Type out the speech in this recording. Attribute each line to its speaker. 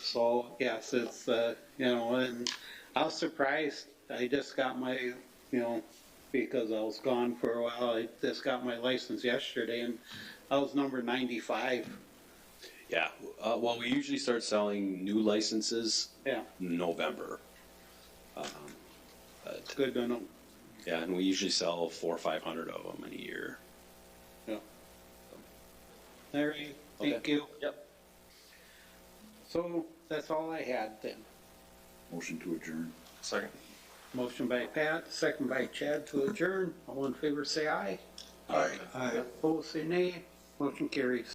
Speaker 1: So yes, it's, uh, you know, and I was surprised. I just got my, you know, because I was gone for a while, I just got my license yesterday and I was number ninety-five.
Speaker 2: Yeah, uh, well, we usually start selling new licenses
Speaker 1: Yeah,
Speaker 2: November.
Speaker 1: it's good to know.
Speaker 2: Yeah, and we usually sell four or five hundred of them in a year.
Speaker 1: Larry, thank
Speaker 2: Okay.
Speaker 1: you.
Speaker 2: Yep.
Speaker 1: So that's all I had then.
Speaker 3: Motion to adjourn.
Speaker 2: Second.
Speaker 1: Motion by Pat, second by Chad to adjourn. All in favor, say aye.
Speaker 3: Aye.
Speaker 1: Aye. Opposed, say nay. Motion carries.